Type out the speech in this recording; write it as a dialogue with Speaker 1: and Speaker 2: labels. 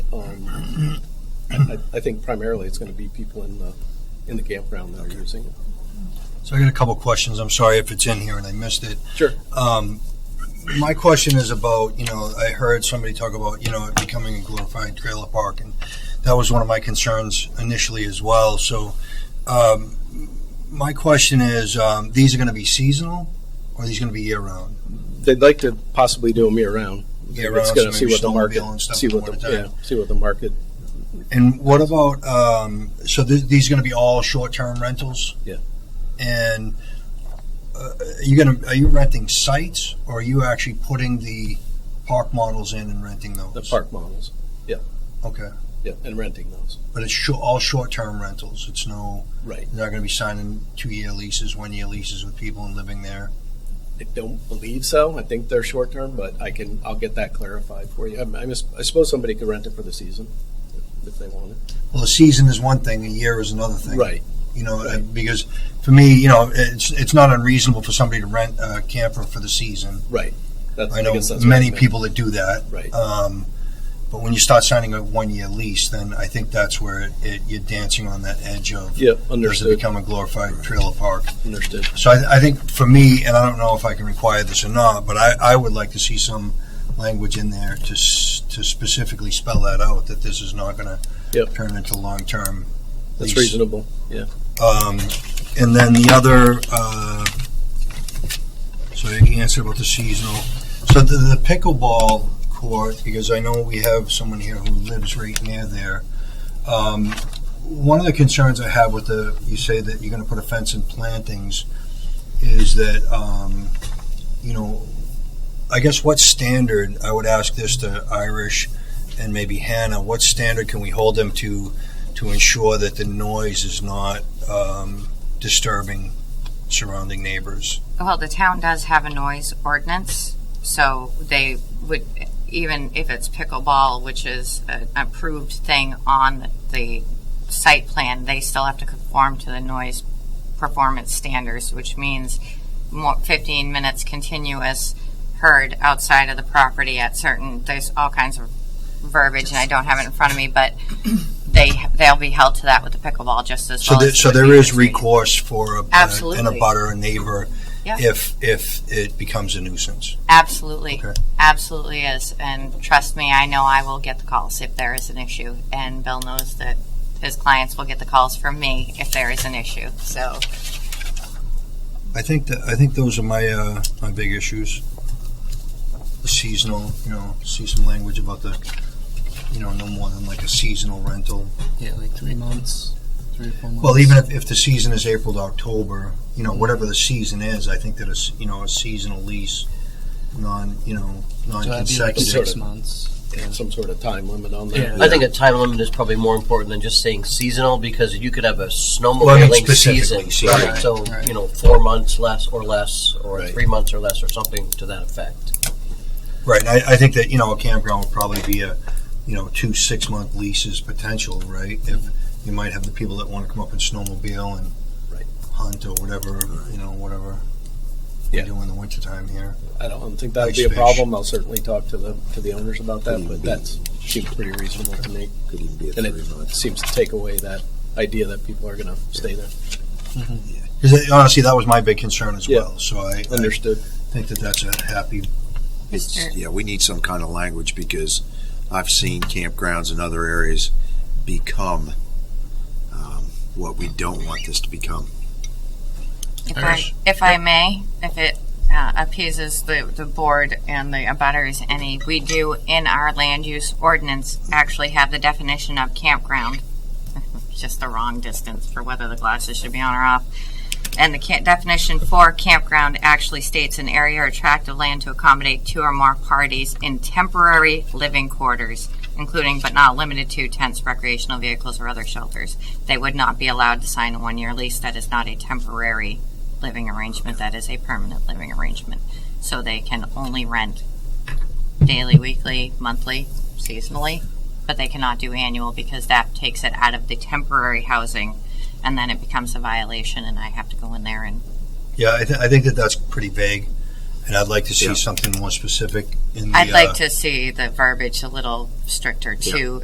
Speaker 1: on, Um, I, I think primarily it's going to be people in the, in the campground that are using it.
Speaker 2: So I got a couple questions. I'm sorry if it's in here and I missed it.
Speaker 1: Sure.
Speaker 2: Um, my question is about, you know, I heard somebody talk about, you know, it becoming a glorified trailer park, and that was one of my concerns initially as well. So, um, my question is, um, these are going to be seasonal, or are these going to be year round?
Speaker 1: They'd like to possibly do them year-round.
Speaker 2: Year
Speaker 1: It's
Speaker 2: round,
Speaker 1: going to see what the market,
Speaker 2: and stuff
Speaker 1: see
Speaker 2: in the
Speaker 1: what the, yeah,
Speaker 2: wintertime.
Speaker 1: see what the market,
Speaker 2: And what about, um, so th- these going to be all short term rentals?
Speaker 1: Yeah.
Speaker 2: And uh, are you going to, are you renting sites or are you actually putting the park models in and renting those?
Speaker 1: the park models,
Speaker 2: Okay.
Speaker 1: yeah, and renting those.
Speaker 2: But it's sho- all short term rentals. It's no,
Speaker 1: Right.
Speaker 2: they're not going to be signing two year leases, one year leases with people and living there.
Speaker 1: I don't believe so. I think they're short-term, but I can, I'll get that clarified for you. I I mis- I suppose somebody could rent it for the season if they wanted.
Speaker 2: Well, a season is one thing, a year is another thing.
Speaker 1: Right,
Speaker 2: You know, uh, because for me, you know, it's, it's not unreasonable for somebody to rent a camper for the season.
Speaker 1: right. That's-
Speaker 2: I know
Speaker 1: guess that's what
Speaker 2: many
Speaker 1: meant.
Speaker 2: people that do that.
Speaker 1: Right,
Speaker 2: Um, but when you start signing a one-year lease, then I think that's where it, it, you're dancing on that edge of
Speaker 1: yeah,
Speaker 2: does it
Speaker 1: understood,
Speaker 2: become a glorified trailer park?
Speaker 1: understood.
Speaker 2: So I, I think for me, and I don't know if I can require this or not, but I, I would like to see some language in there to s- to specifically spell that out that this is not going to
Speaker 1: Yep.
Speaker 2: turn into long-term.
Speaker 1: That's
Speaker 2: lease.
Speaker 1: reasonable.
Speaker 2: Um, and then the other, uh, so you answered about the seasonal. So the, the pickleball court, because I know we have someone here who lives right near there. Um, one of the concerns I have with the, you say that you're going to put a fence in plantings, is that, um, you know, I guess what standard, I would ask this to Irish and maybe Hannah, what standard can we hold them to to ensure that the noise is not um, disturbing surrounding neighbors.
Speaker 3: Well, the town does have a noise ordinance, so they would, even if it's pickleball, which is an approved thing on the site plan, they still have to conform to the noise performance standards, which means more, 15 minutes continuous heard outside of the property at certain, there's all kinds of verbiage, and I don't have it in front of me, but they, they'll be held to that with the pickleball just as
Speaker 2: So,
Speaker 3: well
Speaker 2: there,
Speaker 3: as.
Speaker 2: so
Speaker 3: they would
Speaker 2: there
Speaker 3: be
Speaker 2: is
Speaker 3: with the-
Speaker 2: recourse for a, a, an
Speaker 3: Absolutely.
Speaker 2: abutter, a neighbor,
Speaker 3: Yeah.
Speaker 2: if if it becomes a nuisance.
Speaker 3: Absolutely.
Speaker 2: Okay.
Speaker 3: Absolutely is. And trust me, I know I will get the calls if there is an issue. And Bill knows that his clients will get the calls from me if there is an issue. So,
Speaker 2: I think that I think those are my uh, my big issues. The seasonal, you know, see some language about the, you know, no more than like a seasonal rental.
Speaker 4: Yeah, like three months, three or four months.
Speaker 2: Well, even if, if the season is April to October, you know, whatever the season is, I think that a, s- you know, a seasonal lease, non, you know,
Speaker 4: so that'd be like
Speaker 2: non-consecutive.
Speaker 4: six months.
Speaker 1: Some sort of time limit on
Speaker 4: Yeah.
Speaker 1: that.
Speaker 5: I think a time limit is probably more important than just saying seasonal because you could have a snowmobiling
Speaker 2: Well, I mean specifically
Speaker 5: season,
Speaker 2: seasonal.
Speaker 4: Right,
Speaker 5: So
Speaker 4: right.
Speaker 5: you know, four months less or less, or
Speaker 1: Right.
Speaker 5: three months or less, or something to that effect.
Speaker 2: Right, and I, I think that, you know, a campground would probably be a, you know, two six-month leases potential, right? If you might have the people that want to come up and snowmobile and
Speaker 1: Right.
Speaker 2: hunt or whatever, you know, whatever we
Speaker 1: Yeah.
Speaker 2: do in the wintertime here.
Speaker 1: I don't think that'd
Speaker 2: Ice
Speaker 1: be a
Speaker 2: fish.
Speaker 1: problem. I'll certainly talk to the, to the owners about that, but that seems pretty reasonable to me.
Speaker 6: Could even be a
Speaker 1: And
Speaker 6: three
Speaker 1: it
Speaker 6: month.
Speaker 1: seems to take away that idea that people are gonna stay there.
Speaker 2: Because honestly, that was my big concern as
Speaker 1: Yeah.
Speaker 2: well, so I, I
Speaker 1: Understood.
Speaker 2: think that that's a happy,
Speaker 6: It's,
Speaker 3: Mr.
Speaker 6: yeah, we need some kind of language because I've seen campgrounds in other areas become um, what we don't want this to become.
Speaker 3: if I,
Speaker 2: Iris?
Speaker 3: if I may, if it uh, appeases the, the board and the abutters any, we do in our land use ordinance actually have the definition of campground. Just the wrong distance for whether the glasses should be on or off. And the ca- definition for campground actually states an area or tract of land to accommodate two or more parties in temporary living quarters, including but not limited to tents, recreational vehicles, or other shelters. They would not be allowed to sign a one-year lease that is not a temporary living arrangement, that is a permanent living arrangement. So they can only rent daily, weekly, monthly, seasonally, but they cannot do annual because that takes it out of the temporary housing and then it becomes a violation and I have to go in there and
Speaker 2: yeah, I, th- I think that that's pretty vague, and I'd like to see
Speaker 6: Yeah.
Speaker 2: something more specific in the.
Speaker 3: I'd
Speaker 2: uh,
Speaker 3: like to see the verbiage a little stricter too